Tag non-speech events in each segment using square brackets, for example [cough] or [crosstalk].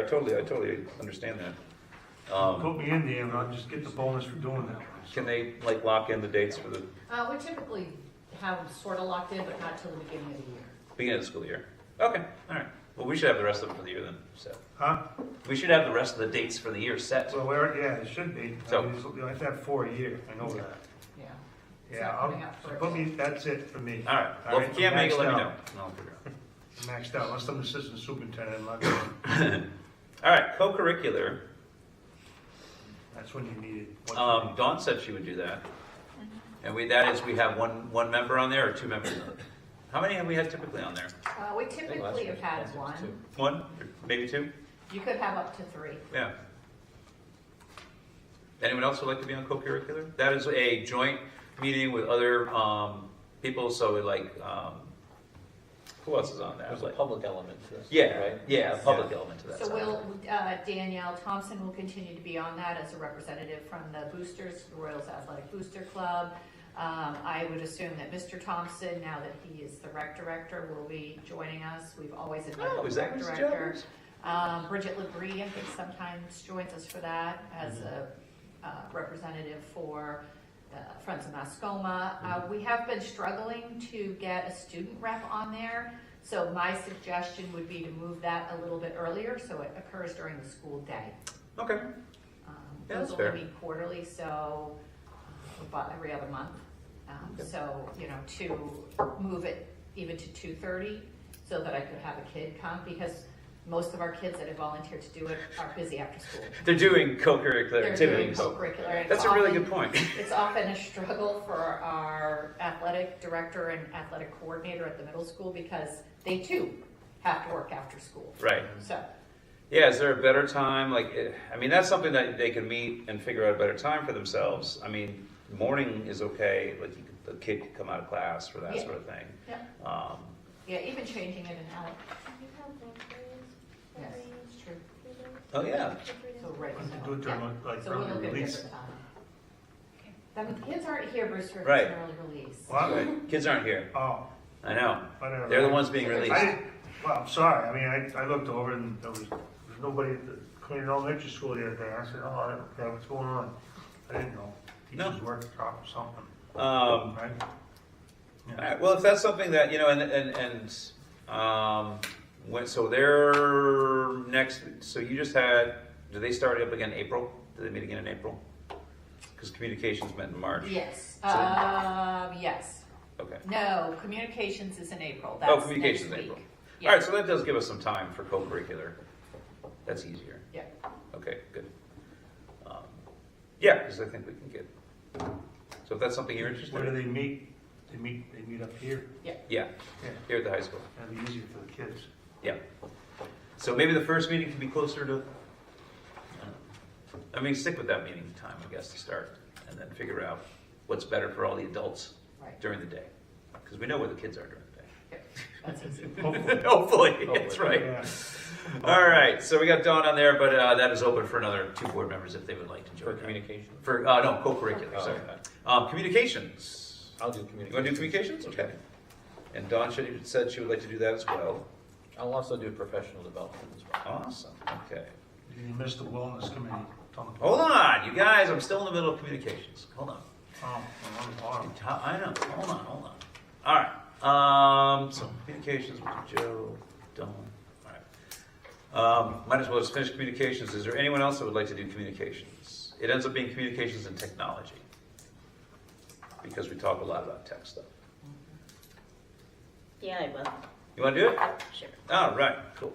I totally, I totally understand that. Um, Put me in there and I'll just get the bonus for doing that one. Can they, like, lock in the dates for the Uh, we typically have sort of locked in, but not till the beginning of the year. beginning of the school year? Okay, all right. Well, we should have the rest of them for the year then, set. Huh? We should have the rest of the dates for the year set. So where, yeah, it should be. I So- mean, it's- You have to have four a year, I know that. Yeah. It's Yeah, not I'll, coming up so for put us. me, that's it for me. All right, well, if I'm you can't make it, let me maxed know. out. and I'll figure it out. I'm Maxed out, unless I'm assistant superintendent, I'm not going. All right, co-curricular. That's when you need it. What- Um, Dawn said she would do that. And we, that is, we have one, one member on there or two members? on there? How many have we had typically on there? Uh, we I think last typically year have was had two. one. One, or maybe two? You could have up to three. Yeah. Anyone else would like to be on co-curricular? That is a joint meeting with other um, people, so it like, um, who else is on that? There's a public element to this. Yeah, Right? yeah, a public element to that. So somehow. we'll, uh, Danielle Thompson will continue to be on that as a representative from the boosters, the Royals Athletic Booster Club. Um, I would assume that Mr. Thompson, now that he is the rec director, will be joining us. We've always invited Oh, the rec is that Ms. director. Jones? Um, Bridget Labrie, I think sometimes joins us for that as a uh, representative for uh, Friends of Mascoma. Uh, We have been struggling to get a student rep on there, so my suggestion would be to move that a little bit earlier, so it occurs during the school day. Okay, Um, Yeah, Those that's fair. only meet quarterly, so uh, about every other month. Um, Okay. So, you know, to move it even to two thirty, so that I could have a kid come, because most of our kids that have volunteered to do it are busy after school. they're doing co-curricular They're doing activities. co-curricular. and That's a really often- good point. It's often a struggle for our athletic director and athletic coordinator at the middle school, because they too have to work after school. Right. So, Yeah, is there a better time? Like, eh, I mean, that's something that they can meet and figure out a better time for themselves. I mean, morning is okay, like, you could- a kid could come out of class for that Yeah. sort of thing. yeah, Um, yeah, even changing it in Alec, You have Valkyries. yes, it's true. Oh, yeah. So right. Why don't you Uh, now, do it during, yeah. like, So we'll early look at release? different time. I mean, kids aren't here, Brewster, it's Right. an early release. What? Kids aren't here. Oh, I know. whatever. They're the ones being I released. I didn't, well, I'm sorry, I mean, I, I looked over and there was, there was nobody at the Clean Elementary School the other day, I said, oh, I don't care what's going on? I didn't know, No. teachers work drop or something, Um, right? all right, well, if that's something that, you know, and, and, and, um, when, so they're next, so you just had, do they start up again in April? Do they meet again in April? Because communications met in March. Yes, So- um, yes. Okay. No, communications is in April, Oh, that's next communications in week. April. All Yeah. right, so that does give us some time for co-curricular. That's easier. Yeah, Okay, good. Um, Yeah, because I think we can get, so if that's something you're interested Where do in, they meet? They meet, they meet up here, yeah, yeah, here at the high school. that'd be easier for the kids. Yeah. So maybe the first meeting can be closer to, I mean, stick with that meeting time, I guess, to start, and then figure out what's better for all the adults right, during the day, because we know where the kids are during the day. [laughs] that's easy. Hopefully. Hopefully, that's Hopefully. right. Yeah. All right, so we got Dawn on there, but uh, that is open for another two board members if they would like to For join. that. communication. For, uh, no, co-curricular, Oh. sorry. Um, Communications. I'll do You communication. want to do communications? Okay. And Dawn should- said she would like to do that as well. I'll also do professional development as well. Awesome, okay. You missed the wellness committee, it's on the, oh, Hold on, you guys, I'm still in the middle of communications. Hold on. on the bottom. I know, hold on, hold on. All right, um, so communications with Joe, Dawn, all right. Um, might as well just finish communications. Is there anyone else that would like to do communications? It ends up being communications and technology. Because we talk a lot about tech stuff. Yeah, I will. You wanna do it? Sure. All Ah, right, cool.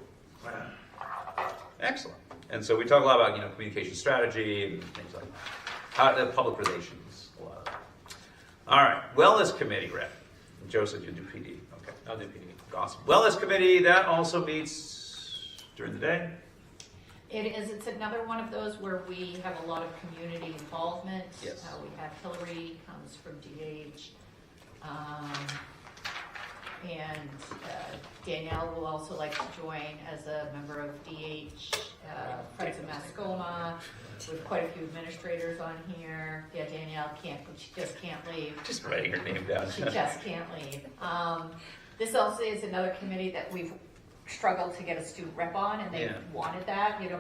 Excellent. And so we talk a lot about, you know, communication strategy and things like that. How, the public relations, a lot of that. All right, wellness committee rep. Joe said you do PD, okay. I'll do PD. Awesome. Wellness committee, that also meets during the day. It is, it's another one of those where we have a lot of community involvement. Yes. Uh, we have Hillary comes from DH. Um, and uh, Danielle will also like to join as a member of DH, uh, Friends of Mascoma, with quite a few administrators on here. Yeah, Danielle can't, she just can't leave. Just writing [laughs] [laughs] her name down. She just can't leave. Um, this also is another committee that we've struggled to get a student rep on, and they Yeah. wanted that, you know,